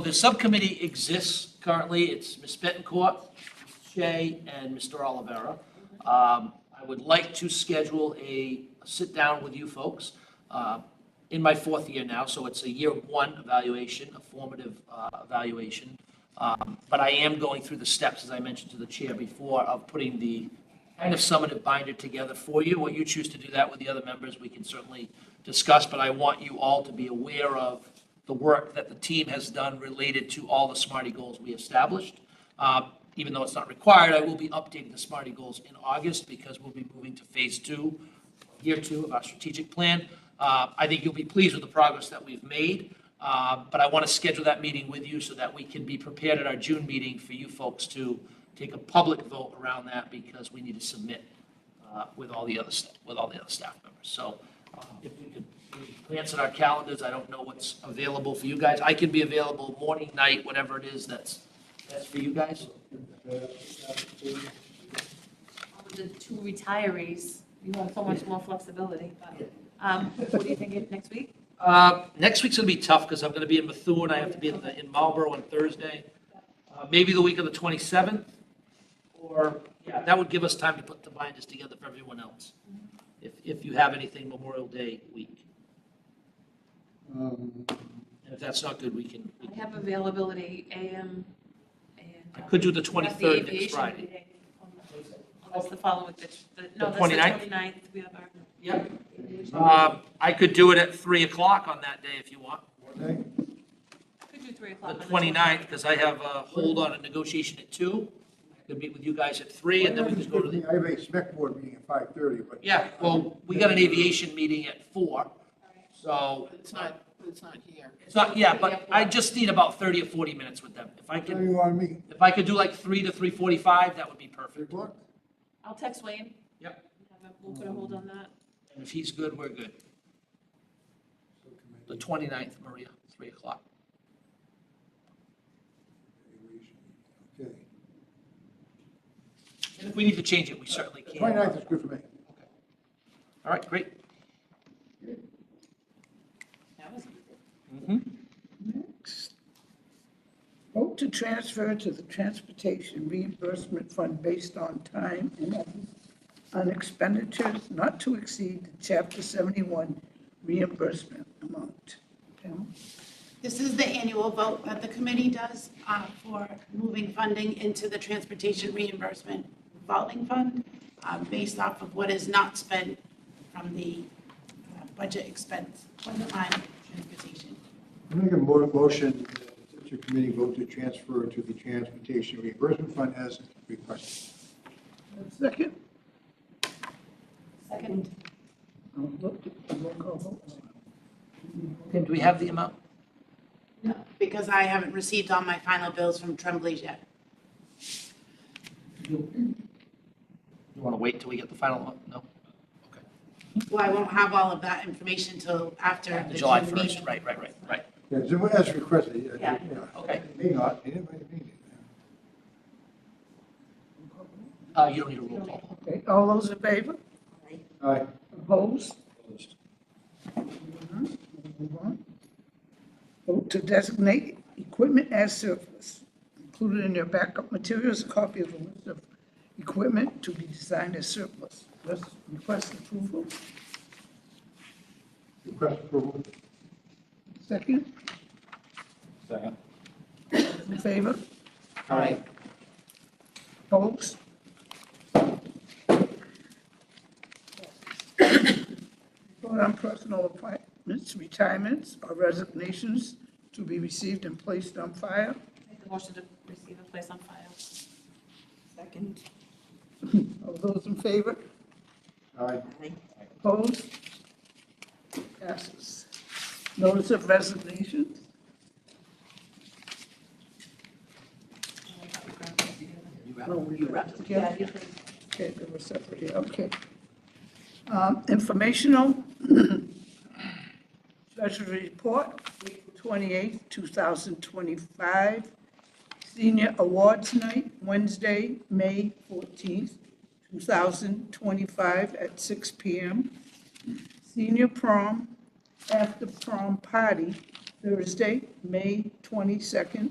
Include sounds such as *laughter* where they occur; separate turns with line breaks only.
The subcommittee exists currently. It's Ms. Bettencourt, Shea, and Mr. Olivera. Um, I would like to schedule a sit-down with you folks uh, in my fourth year now, so it's a year one evaluation, a formative uh, evaluation. Um, But I am going through the steps, as I mentioned to the chair before, of putting the kind of summative binder together for you. What you choose to do that with the other members, we can certainly discuss, but I want you all to be aware of the work that the team has done related to all the SMARTY goals we established. Uh, Even though it's not required, I will be updating the SMARTY goals in August because we'll be moving to phase two, year two of our strategic plan. Uh, I think you'll be pleased with the progress that we've made, uh, but I want to schedule that meeting with you so that we can be prepared at our June meeting for you folks to take a public vote around that because we need to submit uh, with all the other, sta- with all the other staff members. So uh, if we could glance at our calendars, I don't know what's available for you guys. I can be available morning, night, whatever it is that's, that's for you guys.
With the two retirees, you want so much more flexibility, but, um, what do you think of next week?
Uh, Next week's going to be tough because I'm going to be in Methuen. I have to be in the- in Marlboro on Thursday. Uh, Maybe the week of the 27th, or, yeah, that would give us time to put the binders together for everyone else. If, if you have anything Memorial Day week.
Um,
And if that's not good, we can, we
I
can-
have availability AM and. um,
I could do the
That's
23rd next
aviation
Friday.
meeting. Oh, That's the following, that's, the- no,
The
that's the
29th?
29th, we have our.
Yep. Um, I could do it at 3 o'clock on that day if you want,
okay.
Could do three
the
o'clock. on
29th, because I have a hold on a negotiation at 2. I could meet with you guys at 3, and then we just go to the,
I have a spec board meeting at five thirty, but.
yeah, well, we got an aviation meeting at 4, so.
It's not, it's not here.
It's not, yeah, but I just need about 30 or 40 minutes with them. If I
Tell
could,
you want me,
if I could do like 3 to 3:45, that would be
three
perfect.
o'clock?
I'll text Wayne.
Yep.
Have a- We'll put a hold on that.
And if he's good, we're good. The 29th, Maria, 3 o'clock.
Okay.
And if we need to change it, we certainly can.
Twenty-ninth is good for me.
All right, great.
That was
Next. Vote to transfer to the Transportation Reimbursement Fund based on time and other on expenditures not to exceed the Chapter 71 reimbursement amount. Pamela?
This is the annual vote that the committee does uh, for moving funding into the transportation reimbursement revolving fund uh, based off of what is not spent from the uh, budget expense on the line transportation.
I Make a mo- motion that your committee vote to transfer to the Transportation Reimbursement Fund as requested.
Second?
Second.
I'll look at the roll call vote.
And do we have the amount?
Because I haven't received all my final bills from Tremblay yet.
You want to wait till we get the final one? No?
Well, I won't have all of that information until after the
July
June meeting.
1st, right, right, right, right.
Yeah, so As requested.
Yeah.
Okay.
It May not, it might be.
Uh, You don't need a roll call.
Okay, all those in favor?
All right.
Opposed? Move on. Vote to designate equipment as surplus. Included in your backup materials, a copy of the list of equipment to be designed as surplus. Request- Request approval.
Request approval.
Second,
Second.
in favor?
All right.
Opposed? Vote on personal appointments, retirements, or resignations to be received and placed on file.
Make the motion to receive and place on file.
Second.
All those in favor?
All right.
Opposed? Passes. Notice of resignation? No, we wrapped it together. Okay, they were separate, yeah, okay. Um, Informational, *clears throat* Treasury Report, April 28, 2025. Senior Awards Night, Wednesday, May 14th, 2025, at 6 PM. Senior Prom, After Prom Party, Thursday, May 22nd,